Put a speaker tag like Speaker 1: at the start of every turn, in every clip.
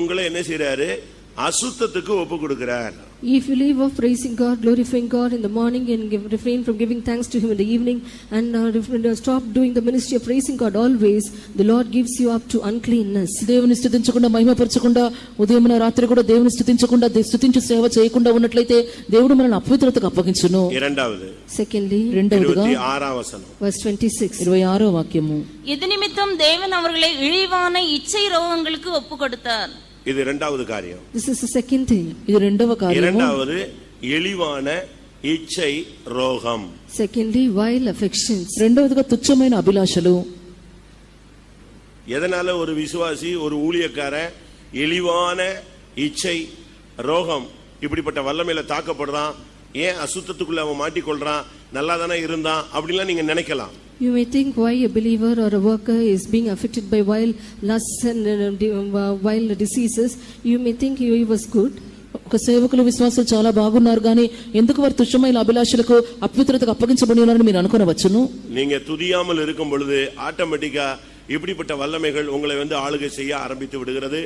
Speaker 1: உங்களை என்ன செய்றாரு அசுத்தத்துக்கு ஒப்பு கொடுக்கிறார்
Speaker 2: If you leave off praising God, glorifying God in the morning and give, refrain from giving thanks to Him in the evening and uh, refrain- uh, stop doing the ministry of praising God always, the Lord gives you up to uncleanness.
Speaker 3: దేవుని స్థుతించకుండా మహిమపరచకుండా ఉదయం రాత్రి కూడా దేవుని స్థుతించకుండా they- స్థుతించు సేవ చేయకుండా ఉన్నట్లయితే దేవుడు మనల్ని అపవిత్రతకు అప్పగించును
Speaker 1: இரண்டாவது
Speaker 2: Secondly,
Speaker 3: రెండవదిగా
Speaker 1: இருபத்தி ஆறாம் వசனம்
Speaker 2: verse 26.
Speaker 3: ఇరవై ఆరో వాక్యము
Speaker 4: இது நிமித்தம் தேவன் அவர்களை இழிவான இச்சை ரோகங்களுக்கு ஒப்பு கொடுத்தார்
Speaker 1: இது இரண்டாவது காரியம்
Speaker 2: This is the second thing.
Speaker 3: ఇది రెండవ కార్యము
Speaker 1: இரண்டாவது இழிவான இச்சை ரோகம்
Speaker 2: Secondly, vile affections.
Speaker 3: రెండవదిగా తుచ్చమైన అభిలాషలు
Speaker 1: எதனால ஒரு விசுவாசி ஒரு ஊழியக்காரன் இழிவான இச்சை ரோகம் இப்படிப்பட்ட வல்லமையில தாக்கப்படுறான் ஏன் அசுத்தத்துக்குள்ள அவன் மாட்டிக்கொள்றான் நல்லா தானே இருந்தான் அப்படின்லாம் நீங்க நினைக்கலாம்
Speaker 2: You may think why a believer or a worker is being affected by vile lusts and uh, de- uh, vile diseases. You may think he was good.
Speaker 3: ఒక సేవకులు విశ్వాసులు చాలా బాగున్నారు కానీ ఎందుకు వారు తుచ్చమైన అభిలాషలకు అపవిత్రతకు అప్పగించబడి ఉన్నారని మీరు అనుకునవచ్చును
Speaker 1: நீங்க துதியாமல் இருக்கும் பொழுது ஆட்டோமேட்டிக்கா இப்படிப்பட்ட வல்லமைகள் உங்களை வந்து ஆளுகை செய்ய ஆரம்பித்து விடுகிறது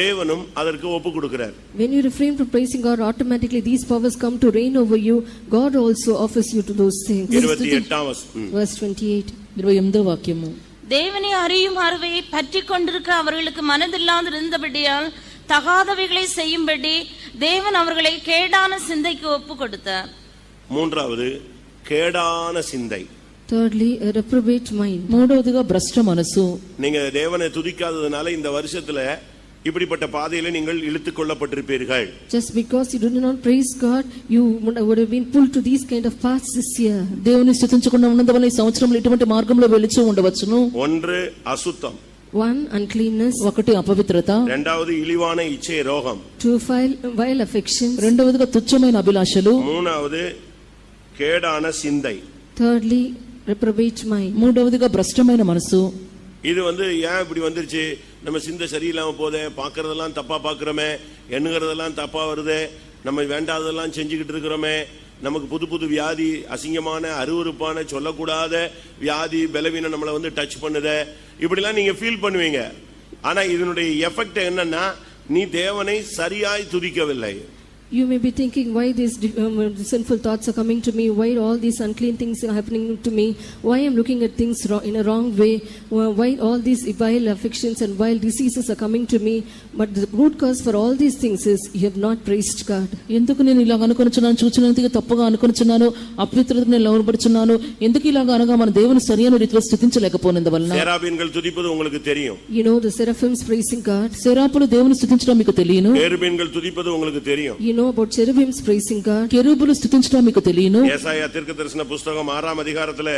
Speaker 1: தேவனும் அதற்கு ஒப்பு கொடுக்கிறார்
Speaker 2: When you refrain from praising God, automatically these powers come to reign over you. God also offers you to those things.
Speaker 1: இருபத்தி எட்டாம் வசனம் ம்.
Speaker 2: Verse 28.
Speaker 3: ఇరవై ఎనిమిదో వాక్యము
Speaker 4: தேவனை அறியும் அறிவையை பற்றி கொண்டிருக்க அவர்களுக்கு மனதில்லாது இருந்தபடியால் தகாதவைகளை செய்யும்படி தேவன் அவர்களை கேடான சிந்தைக்கு ஒப்பு கொடுத்தார்
Speaker 1: மூன்றாவது கேடான சிந்தை
Speaker 2: Thirdly, a reprobate mind.
Speaker 3: మూడవదిగా భ్రష్ట మనసు
Speaker 1: நீங்க தேவனை துதிக்காததுனால இந்த வருஷத்துல இப்படிப்பட்ட பாதையில நீங்கள் இழுத்துக் கொள்ளப்பட்டிருப்பீர்கள்
Speaker 2: Just because you do not praise God, you would would have been pulled to these kind of paths this year.
Speaker 3: దేవుని స్థుతించకుండా ఉన్నందువల్ల ఈ సంవత్సరంలో ఇటువంటి మార్గంలో వెలిచి ఉండవచ్చును
Speaker 1: ஒன்று அசுத்தம்
Speaker 2: One, uncleanness.
Speaker 3: ఒకటి అపవిత్రత
Speaker 1: இரண்டாவது இழிவான இச்சை ரோகம்
Speaker 2: Two, vile vile affections.
Speaker 3: రెండవదిగా తుచ్చమైన అభిలాషలు
Speaker 1: மூணாவது கேடான சிந்தை
Speaker 2: Thirdly, reprobate mind.
Speaker 3: మూడవదిగా భ్రష్టమైన మనసు
Speaker 1: இது வந்து ஏன் இப்படி வந்துருச்சு நம்ம சிந்தை சரியில்லாம போதே பார்க்கறதெல்லாம் தப்பா பார்க்கறோமே எண்ணுகிறதெல்லாம் தப்பா வருதே நம்ம வேண்டாததெல்லாம் செஞ்சுக்கிட்டு இருக்கிறோமே நமக்கு புது புது வியாதி அசிங்கமான அருவருப்பான சொல்லக்கூடாத வியாதி பலவீனம் நம்மளை வந்து டச் பண்ணுதே இப்படிலாம் நீங்க ஃபீல் பண்ணுவீங்க ஆனா இதனுடைய எஃபெக்ட் என்னன்னா நீ தேவனை சரியாய் துதிக்கவில்லை
Speaker 2: You may be thinking why these di- um, sinful thoughts are coming to me, why all these unclean things are happening to me, why I'm looking at things wrong, in a wrong way, why why all these vile affections and vile diseases are coming to me. But the root cause for all these things is you have not praised God.
Speaker 3: ఎందుకు నేను ఇలా అనుకొనిచున్నాను చూచినందుకు తప్పుగా అనుకొనిచున్నాను అపవిత్రతకు నేను లోనపడుచున్నాను ఎందుకు ఇలాగ అనగా మన దేవుని సరియైన రీతిలో స్థుతించలేకపోయినందువలన
Speaker 1: சேராபீன்கள் துதிப்பது உங்களுக்கு தெரியும்
Speaker 2: You know the seraphims praising God.
Speaker 3: శరాపులు దేవుని స్థుతించడం మీకు తెలియను
Speaker 1: பேருபீன்கள் துதிப்பது உங்களுக்கு தெரியும்
Speaker 2: You know about cherubims praising God.
Speaker 3: కెరూబులు స్థుతించడం మీకు తెలియను
Speaker 1: ஏசாயா தீர்க்க தரிசன புஸ்தகம் ஆறாம் அதிகாரத்துல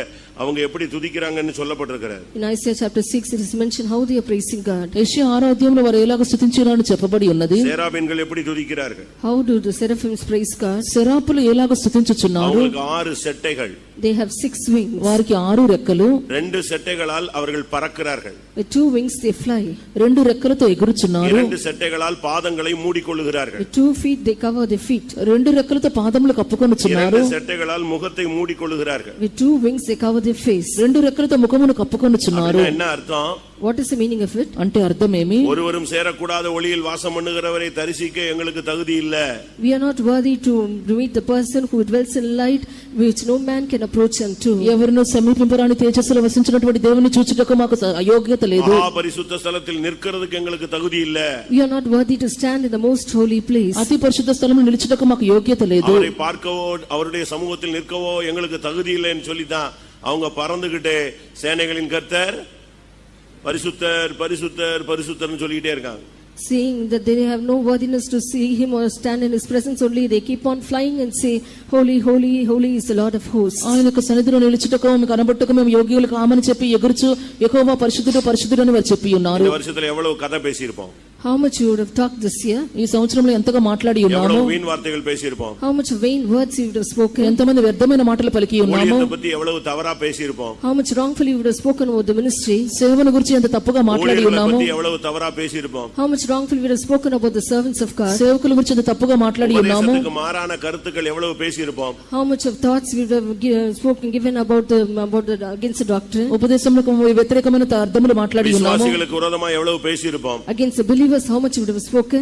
Speaker 1: அவங்க எப்படி துதிக்கிறாங்கன்னு சொல்லப்பட்டிருக்கிறார்
Speaker 2: In Isaiah chapter 6, it is mentioned how they are praising God.
Speaker 3: యెషయా ఆరో అధ్యాయంలో వారు ఎలాగ స్థుతించినారని చెప్పబడి ఉన్నది
Speaker 1: சேராபீன்கள் எப்படி துதிக்கிறார்கள்
Speaker 2: How do the seraphims praise God?
Speaker 3: శరాపులు ఎలాగ స్థుతించుచున్నారు
Speaker 1: அவங்களுக்கு ஆறு செட்டைகள்
Speaker 2: They have six wings.
Speaker 3: వారికి ఆరు రెక్కలు
Speaker 1: ரெண்டு செட்டைகளால் அவர்கள் பறக்கிறார்கள்
Speaker 2: With two wings they fly.
Speaker 3: రెండు రెక్కలతో ఎగురుచున్నారు
Speaker 1: இரண்டு செட்டைகளால் பாதங்களை மூடிக்கொள்ளுகிறார்கள்
Speaker 2: With two feet they cover their feet.
Speaker 3: రెండు రెక్కలతో పాదములు
Speaker 1: இரண்டு
Speaker 3: కప్పుకొనుచున్నారు
Speaker 1: செட்டைகளால் முகத்தை மூடிக்கொள்ளுகிறார்கள்
Speaker 2: With two wings they cover their face.
Speaker 3: రెండు రెక్కలతో ముఖమును కప్పుకొనుచున్నారు
Speaker 1: அப்படின்னா என்ன அர்த்தம்
Speaker 2: What is the meaning of it?
Speaker 3: అంటే అర్థమేమి
Speaker 1: ஒருவரும் சேரக்கூடாத ஒளியில் வாசம் பண்ணுகிறவரை தரிசிக்க எங்களுக்கு தகுதி இல்ல
Speaker 2: We are not worthy to meet the person who dwells in light which no man can approach unto.
Speaker 3: ఎవరినో సమీపింపరాని తేజస్సులో వసించినటువంటి దేవుని చూచుటకు మాకు స- అయోగ్యత లేదు
Speaker 1: மகா பரிசுத்த ஸ்தலத்தில் நிற்கிறதுக்கு எங்களுக்கு தகுதி இல்ல
Speaker 2: We are not worthy to stand in the most holy place.
Speaker 3: అతి పరిశుద్ధ స్థలంలో నిలిచుటకు మాకు యోగ్యత లేదు
Speaker 1: அவரை பார்க்கவோ அவருடைய சமூகத்தில் நிற்கவோ எங்களுக்கு தகுதி இல்லைன்னு சொல்லித்தான் அவங்க பறந்துகிட்டே சேனைகளின் கர்த்தர் பரிசுத்தர் பரிசுத்தர் பரிசுத்தர்னு சொல்லிக்கிட்டே இருக்காங்க
Speaker 2: Seeing that they have no worthiness to see him or stand in his presence only, they keep on flying and say, Holy, holy, holy is the Lord of hosts.
Speaker 3: ఆయన యొక్క సన్నిధిలో నిలిచుటకు మీకు కనబట్టుకు మేము యోగ్యులు కామని చెప్పి ఎగురుచు ఎక్కువ పరిశుద్ధుడు పరిశుద్ధుడు అని వారు చెప్పి ఉన్నారు
Speaker 1: இந்த வருஷத்துல எவ்வளவு கதை பேசியிருப்போம்
Speaker 2: How much you would have talked this year?
Speaker 3: ఈ సంవత్సరంలో ఎంతగా మాట్లాడి ఉన్నాము
Speaker 1: எவ்வளவு வீண் வார்த்தைகள் பேசியிருப்போம்
Speaker 2: How much vain words you would have spoken?
Speaker 3: ఎంతమంది వ్యర్థమైన మాటలు పలికి ఉన్నాము
Speaker 1: ஊழியத்தை பத்தி எவ்வளவு தவறா பேசியிருப்போம்
Speaker 2: How much wrongfully you would have spoken about the ministry?
Speaker 3: సేవను గురించి ఎంత తప్పుగా మాట్లాడి
Speaker 1: ஊழியர்களை
Speaker 3: ఉన్నాము
Speaker 1: பத்தி எவ்வளவு தவறா பேசியிருப்போம்
Speaker 2: How much wrongfully we have spoken about the servants of God.
Speaker 3: సేవకుల గురించి ఎంత తప్పుగా మాట్లాడి ఉన్నాము
Speaker 1: உபதேசத்துக்கு மாறான கருத்துக்கள் எவ்வளவு பேசியிருப்போம்
Speaker 2: How much of thoughts we have gi- spoken given about the about the against the doctrine,
Speaker 3: ఉపదేశంలో వ్యతిరేకమైన అర్థములు మాట్లాడి ఉన్నాము
Speaker 1: விசுவாசிகளுக்கு விரோதமா எவ்வளவு பேசியிருப்போம்
Speaker 2: against the believers, how much would have spoken.